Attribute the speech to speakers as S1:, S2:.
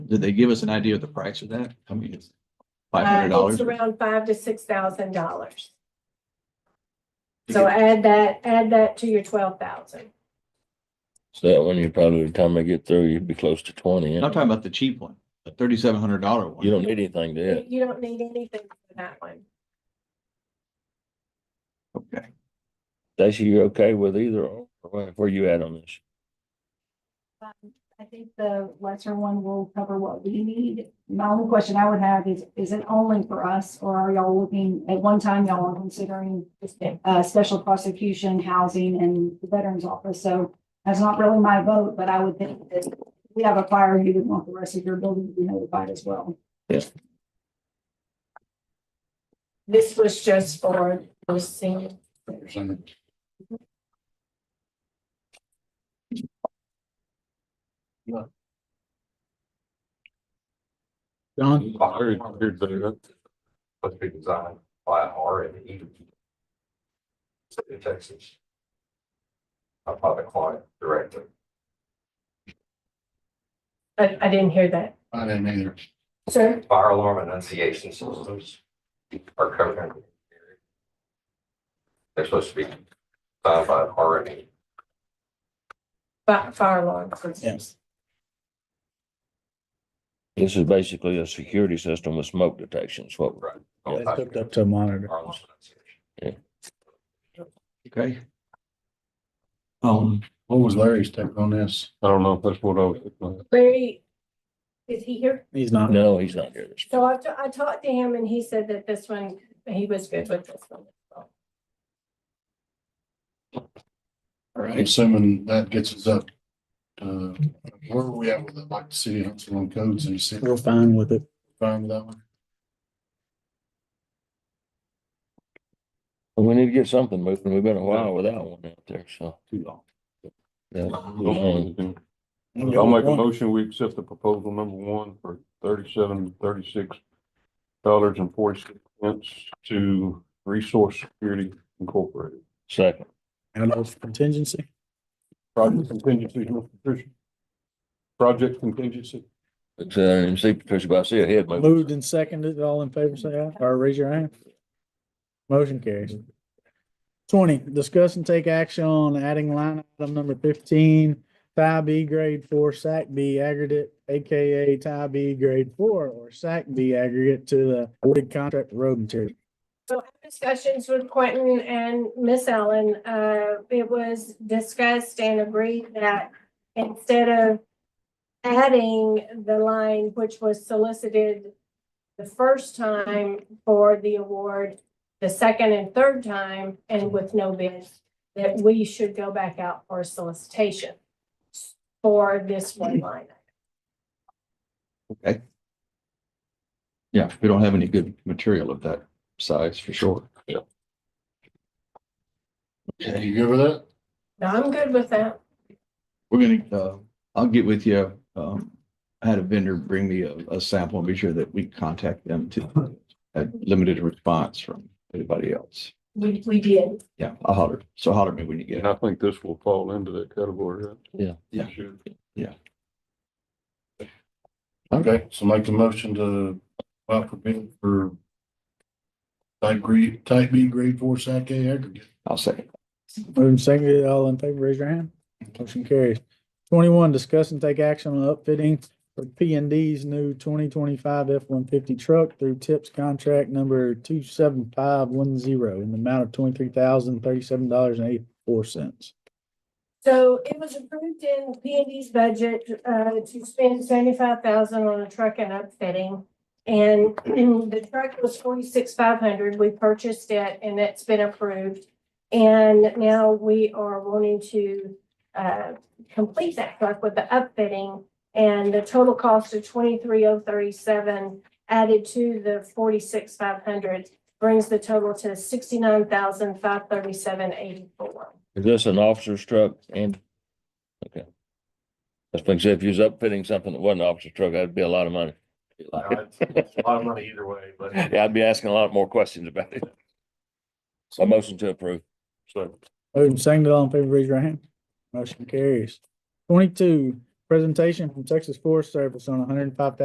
S1: Did they give us an idea of the price of that? How many is? Five
S2: Uh,
S1: hundred dollars?
S2: It's around five to six thousand dollars. So add that, add that to your twelve thousand.
S3: So that one, you probably, by the time I get through, you'd be close to twenty.
S1: I'm
S3: You
S1: talking about the cheap one, the thirty-seven hundred dollar one.
S3: don't need anything to
S2: You
S3: it.
S2: you don't need anything for that one.
S1: Okay.
S3: Stacy, you're okay with either or? or where- Where you at on this?
S4: I think the lesser one will cover what we need. My only question I would have is, is it only for us or are y'all looking, at one time y'all were considering uh, special prosecution, housing and the veterans office, so that's not really my vote, but I would think that if we have a fire, you would want the rest of your building to be notified as well.
S2: This was just for those senior.
S1: Don,
S5: Very weird that it- Must be designed by R and E. State of Texas. Not By the client directly.
S2: I, I didn't hear that.
S6: I didn't either.
S2: Sir?
S5: Fire alarm enunciation systems are covered. under the area. They're supposed to be designed by R and E.
S2: Fi- Fire alarm.
S1: Yes.
S3: This is basically a security system with smoke detection. It's what,
S5: Right.
S6: Oh,
S3: Yeah,
S7: hooked up to a monitor.
S5: Fire alarm enunciation.
S1: okay. Um,
S6: What was Larry's take on this?
S5: I don't know if that's what I was.
S2: Larry, is he here?
S7: He's not.
S3: no, he's not here. this-
S2: So I, ta- I talked to him and he said that this one, he was good with this one.
S1: all right.
S6: Assuming that gets us up. to where were we at with it? Like the city of Huntsville on codes and you see,
S7: We're fine with it.
S6: fine with that one?
S3: We need to get something moving. We've been a while without one out there, so.
S1: Too long.
S3: yeah, move on.
S8: I'll make a motion, we accept the proposal number one for thirty-seven, thirty-six dollars and forty-six cents to Resource Security Incorporated.
S3: Second,
S7: And of contingency.
S8: Project contingency, Mr. Patricia. Project contingency.
S3: it's, uh, I didn't see Patricia, but I see a head moving.
S7: Moved and seconded. All in favor, say aye, or raise your hand. Motion carries. Twenty, discuss and take action on adding line item number fifteen, tie B grade four, SAC B aggregate, AKA tie B grade four or SAC B aggregate to the awarded contract road material.
S2: So I had discussions with Quentin and Miss Ellen, uh, it was discussed and agreed that instead of adding the line which was solicited the first time for the award, the second and third time, and with no bid, that we should go back out for a solicitation for this one line.
S1: Yeah, we don't have any good material of that size for sure.
S6: You good with that?
S2: Now, I'm good with that.
S1: We're gonna, uh, I'll get with you. Um, I had a vendor bring me a, a sample and be sure that we contact them to a limited response from anybody else.
S2: We, we did.
S1: Yeah, I'll holler. So holler at me when you get it.
S8: And I think this will fall into that category. right?
S3: Yeah.
S1: Yeah.
S8: Sure.
S6: Okay, so make a motion to apply for bid for type grade, type B grade four sack A aggregate.
S1: I'll second.
S7: Moved and seconded. All in favor, raise your hand. Motion carries. Twenty-one, discuss and take action on upfitting for P and D's new twenty twenty-five F one fifty truck through TIPS contract number two seven five one zero in the amount of twenty-three thousand thirty-seven dollars and eighty-four cents.
S2: So it was approved in P and D's budget, uh, to spend seventy-five thousand on a truck and upfitting. And the truck was forty-six five hundred. We purchased it and it's been approved. And now we are wanting to, uh, complete that truck with the upfitting. And the total cost of twenty-three oh thirty-seven added to the forty-six five hundred brings the total to sixty-nine thousand five thirty-seven eighty-four.
S3: Is this an officer's truck and? Okay. That's been said, if you was upfitting something that wasn't an officer's truck, that'd be a lot of money.
S5: It's a lot of money either way, but.
S3: Yeah, I'd be asking a lot more questions about it. So motion to approve.
S5: So.
S7: Moved and seconded. All in favor, raise your hand. Motion carries. Twenty-two, presentation from Texas Forest Service on one hundred and five thousand